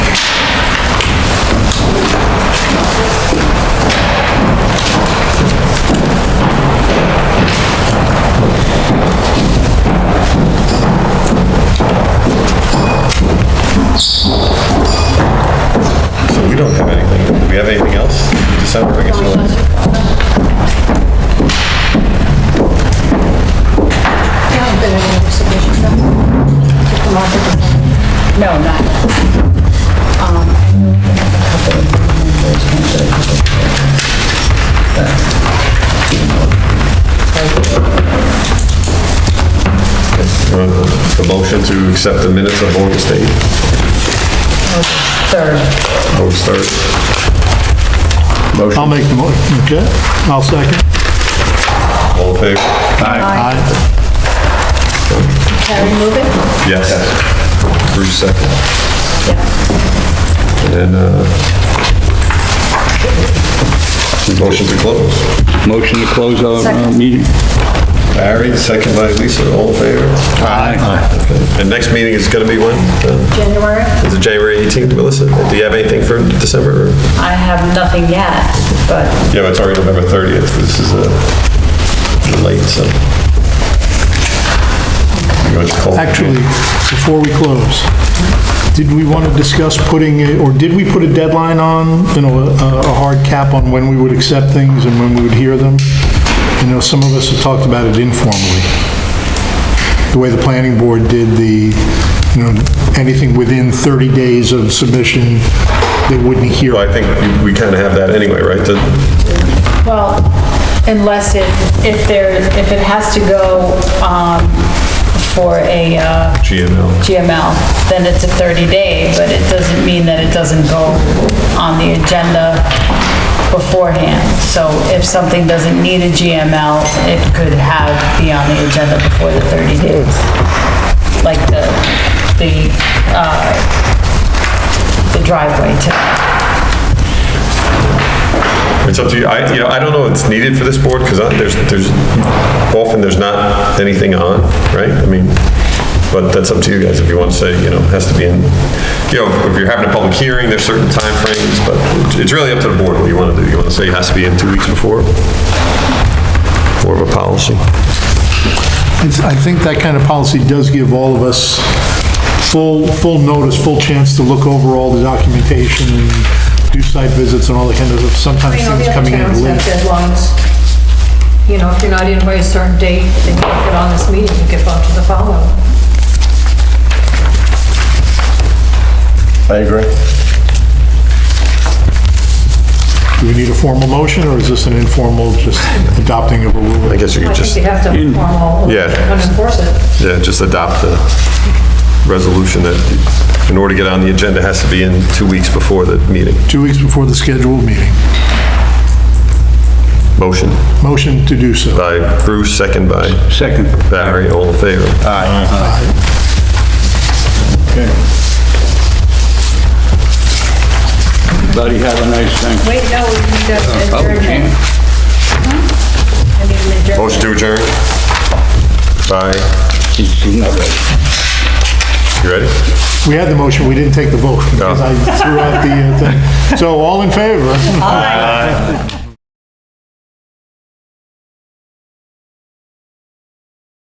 don't have anything. Do we have anything else in December? I guess we don't. haven't been in any submissions, no? To come off of the- No, not. Uh, A motion to accept the minutes of August 8th, Third. August 3rd. Motion, I'll make the motion, okay? I'll second. all in favor? Aye. Can I remove it? Yes. Bruce second. And, uh, motion to close. Motion to close our uh, meeting. Barry, second by Lisa, all in favor? Aye. Okay. And next meeting is gonna be when? Uh, January? Is it January 18th, Melissa? Do you have anything for December? or- I have nothing yet, but Yeah, it's already November 30th, this is, uh, late, so. You want to call- Actually, before we close, did we want to discuss putting, a- or did we put a deadline on, you know, a a hard cap on when we would accept things and when we would hear them? You know, some of us have talked about it informally. The way the planning board did the, you know, anything within 30 days of submission, they wouldn't hear. Well, I think we- we kind of have that anyway, right? The- Well, unless it, if there, if it has to go um, for a uh, GML. GML, then it's a 30-day, but it doesn't mean that it doesn't go on the agenda beforehand. So if something doesn't need a GML, it could have, be on the agenda before the 30 days. Like the, the, uh, the driveway to, It's up to you. I, you know, I don't know it's needed for this board because there's, there's, often there's not anything on, right? I mean, but that's up to you guys if you want to say, you know, it has to be in, you know, if you're having a public hearing, there's certain timeframes, but it's really up to the board what you want to do. You want to say it has to be in two weeks before? More of a policy. It's- I think that kind of policy does give all of us full, full notice, full chance to look over all the documentation, and do site visits and all that kind of, stuff. I sometimes mean, all the things other coming towns in have late. deadlines. You know, if you're not in by a certain date, then you don't get on this meeting, you get bumped to the following. I agree. Do we need a formal motion, or is this an informal, just adopting of a I rule? guess you I could think just, they have to formal, Yeah. unenforce it. yeah, just adopt the resolution that in order to get on the agenda, it has to be in two weeks before the meeting. Two weeks before the scheduled meeting. Motion Motion to do so. by Bruce, second by Second. Barry, all in favor? Aye. Buddy, have a nice thing. Wait, no, we need to Oh, adjourn it. I mean, adjourn. Motion to adjourn? Bye. She's not ready. You ready? We had the motion, we didn't take the vote, because I threw out the uh, thing. So all in favor? Aye.